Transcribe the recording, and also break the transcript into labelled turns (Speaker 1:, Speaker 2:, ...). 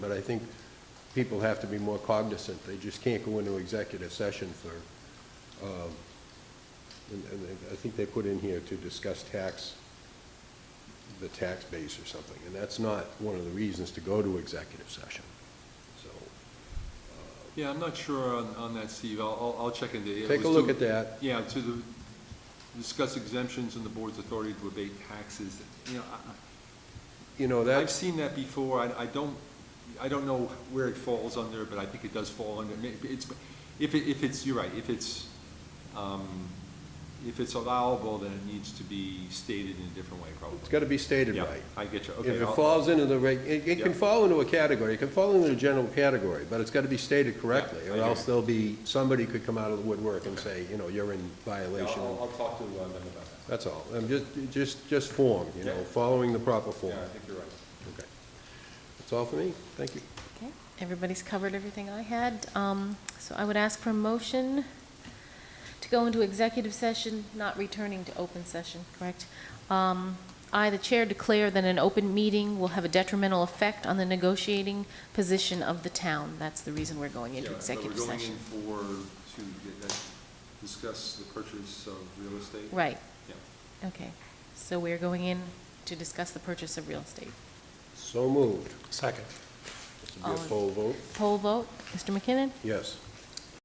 Speaker 1: But I think people have to be more cognizant. They just can't go into executive session for, um, and and I think they put in here to discuss tax, the tax base or something. And that's not one of the reasons to go to executive session. So
Speaker 2: Yeah, I'm not sure on, on that, Steve. I'll, I'll, I'll check into it. It
Speaker 1: take a
Speaker 2: was
Speaker 1: look
Speaker 2: to-
Speaker 1: at that.
Speaker 2: Yeah, to the, discuss exemptions and the board's authority to abate taxes. You know, I-
Speaker 1: You know,
Speaker 2: I, I've
Speaker 1: that's,
Speaker 2: seen that before. I, I don't, I don't know where it falls under, but I think it does fall under, maybe it's, if it, if it's, you're right, if it's, um, if it's allowable, then it needs to be stated in a different way, probably.
Speaker 1: it's got to be stated
Speaker 2: Yeah,
Speaker 1: right.
Speaker 2: I get you.
Speaker 1: If
Speaker 2: Okay.
Speaker 1: it
Speaker 2: I'll-
Speaker 1: falls into the, reg- it it can
Speaker 2: Yeah.
Speaker 1: fall into a category, it can fall into a general category, but it's got to be stated correctly,
Speaker 2: Yeah, I
Speaker 1: or
Speaker 2: hear
Speaker 1: else
Speaker 2: you.
Speaker 1: there'll be, somebody could come out of the woodwork and
Speaker 2: Okay.
Speaker 1: say, you know, you're in
Speaker 2: I'll,
Speaker 1: violation.
Speaker 2: I'll I'll talk to uh, them about that.
Speaker 1: That's all. I'm just, just, just form, you know,
Speaker 2: Yeah.
Speaker 1: following the proper form.
Speaker 2: Yeah, I think you're right.
Speaker 1: Okay. That's all for me. Thank you.
Speaker 3: Okay, everybody's covered everything I had. Um, So I would ask for a motion to go into executive session, not returning to open session, correct? Um, I, the chair, declare that an open meeting will have a detrimental effect on the negotiating position of the town. That's the reason we're going into
Speaker 2: Yeah, so
Speaker 3: executive session.
Speaker 2: We're going in for, to get that- discuss the purchase of real estate?
Speaker 3: Right,
Speaker 2: Yeah.
Speaker 3: okay. So we're going in to discuss the purchase of real estate.
Speaker 1: So moved.
Speaker 4: Second.
Speaker 1: This will be
Speaker 3: All
Speaker 1: a
Speaker 3: in-
Speaker 1: poll vote.
Speaker 3: Poll vote, Mr. McKinnon?
Speaker 1: Yes.